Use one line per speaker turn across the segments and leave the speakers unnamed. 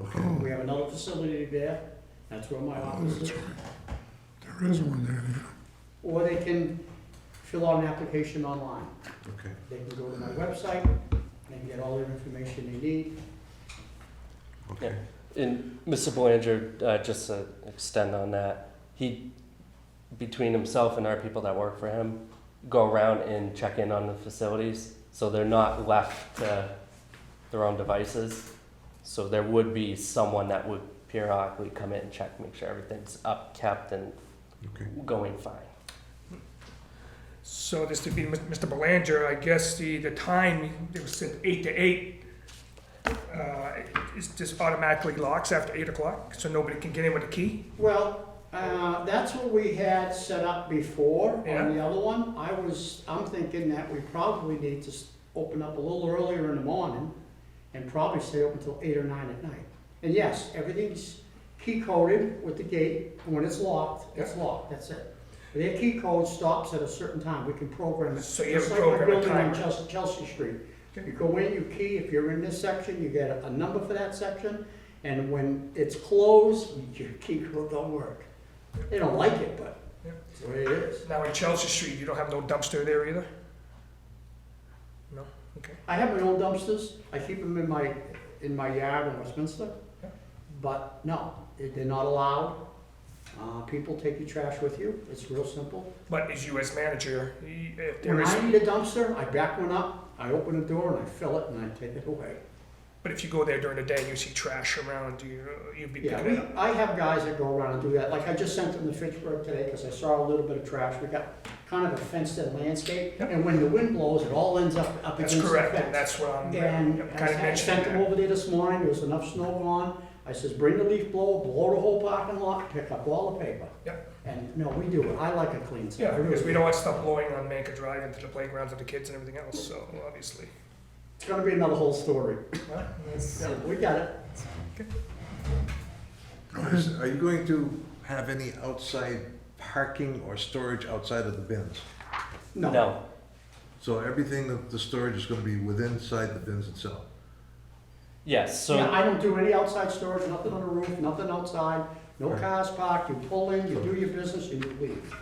Oh.
have another facility there, that's where my office is.
There is one there, yeah.
Or they can fill out an application online.
Okay.
They can go to my website, they can get all their information they need.
Okay.
And Mr. Belanger, uh, just to extend on that, he, between himself and our people that work for him, go around and check in on the facilities, so they're not left to their own devices. So there would be someone that would periodically come in and check, make sure everything's up, kept, and
Okay.
going fine.
So this would be Mis- Mr. Belanger, I guess the, the time, it was said eight to eight, uh, is just automatically locks after eight o'clock, so nobody can get in with a key?
Well, uh, that's what we had set up before
Yeah.
on the other one. I was, I'm thinking that we probably need to s- open up a little earlier in the morning and probably stay open until eight or nine at night. And yes, everything's key coded with the gate, and when it's locked, it's locked, that's it. Their key code stops at a certain time, we can program it.
So you have
Just
a
like my
program
building on
timer.
Chelsea, Chelsea Street.
Okay.
You go in, you key, if you're in this section, you get a- a number for that section, and when it's closed, your key code don't work. They don't like it, but
Yep.
it's the way it is.
Now in Chelsea Street, you don't have no dumpster there either? No, okay.
I have my own dumpsters, I keep them in my, in my yard in Westminster,
Yeah.
but no, they- they're not allowed. Uh, people take your trash with you, it's real simple.
But as you as manager, y- if there
When
is,
I need a dumpster, I back one up, I open the door and I fill it and I take it away.
but if you go there during the day and you see trash around, you, you'd be
Yeah,
picking it
we,
up.
I have guys that go around and do that, like I just sent them to Fitchburg today because I saw a little bit of trash, we got kind of a fenced-in landscape,
Yep.
and when the wind blows, it all ends up, up
That's
against the
correct, and
fence.
that's what I'm,
And
I'm kinda
I sent them
mentioning that.
over there this morning, there was enough snow gone, I says, bring the leaf blower, blow the whole parking lot, pick up all the paper.
Yep.
And, no, we do it, I like a clean site. I
Yeah,
really
because we
do.
don't want stuff blowing on Manka Drive into the playgrounds of the kids and everything else, so obviously.
It's gonna be another whole story,
Well,
Yeah, we got it.
Are you going to have any outside parking or storage outside of the bins?
No,
So everything, that the storage is gonna be within inside the bins itself?
yes,
Yeah,
so,
I don't do any outside storage, nothing on the roof, nothing outside, no
Right.
cars parked, you pull in, you do your business, and you leave.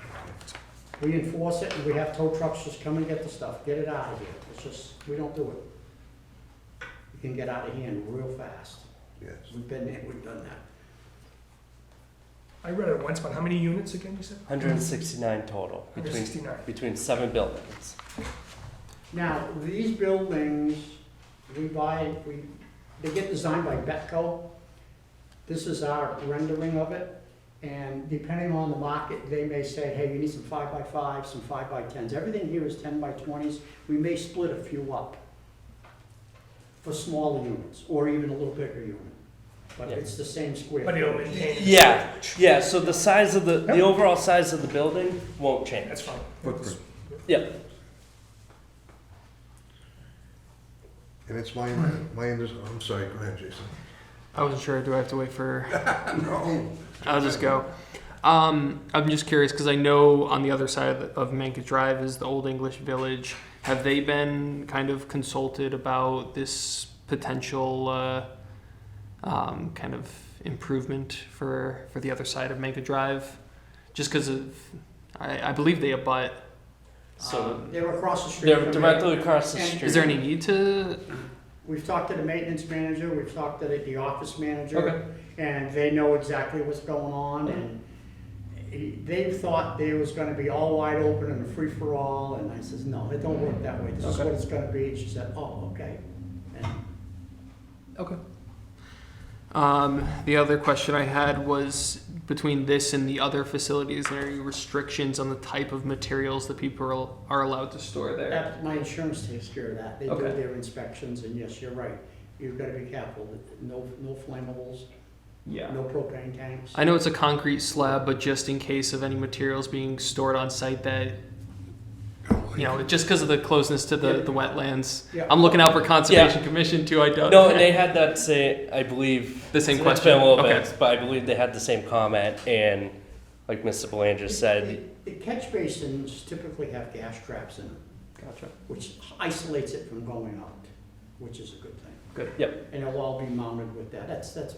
We enforce it, and we have tow trucks just come and get the stuff, get it out of here, it's just, we don't do it. You can get out of hand real fast,
Yes.
we've been there, we've done that.
I read it once, but how many units again, you said?
hundred and sixty-nine total, between,
169.
between seven buildings.
Now, these buildings, we buy, we, they get designed by Betco. This is our rendering of it, and depending on the market, they may say, hey, you need some five by fives, some five by tens. Everything here is ten by twenties, we may split a few up for smaller units, or even a little bigger unit, but
Yeah.
it's the same square.
But it'll
footage.
maintain.
Yeah, yeah, so the size of the, the
Yep.
overall size of the building won't change.
That's fine.
Footprint.
Yeah.
And it's my, my, under- I'm sorry, go ahead, Jason.
I wasn't sure. Do I have to wait for?
No.
I'll just go. Um, I'm just curious because I know on the other side of, of Manka Drive is the Old English Village. Have they been kind of consulted about this potential uh, um, kind of improvement for for the other side of Manka Drive? Just because of, I, I believe they abut.
So Uh,
Um, They were across the street.
they're
from me.
directly across the
And-
street.
Is there any need to?
We've talked to the maintenance manager, we've talked to the- the office manager.
Okay.
and they know exactly what's going on, and he- they thought they was gonna be all wide open and a free-for-all, and I says, no, it don't work that way, this is what it's gonna be, and she said, oh, okay. And
Okay. Um, the other question I had was between this and the other facilities, are there any restrictions on the type of materials that people are, are allowed to store there?
that, my insurance takes care of that, they do
Okay.
their inspections, and yes, you're right, you've gotta be careful, no, no flammables,
Yeah.
no propane tanks.
I know it's a concrete slab, but just in case of any materials being stored on site that, you know, just because of the closeness to the, the wetlands.
Yeah.
I'm looking out for Conservation Commission too, I don't.
No, and they had that say, I believe.
The same
It's been a
question.
little
Okay.
bit, but I believe they had the same comment, and like Mr. Belanger said,
The the catch basins typically have gas traps in them,
Gotcha.
which isolates it from going out, which is a good thing.
Good.
Yep.
And it'll all be mounted with that, that's, that's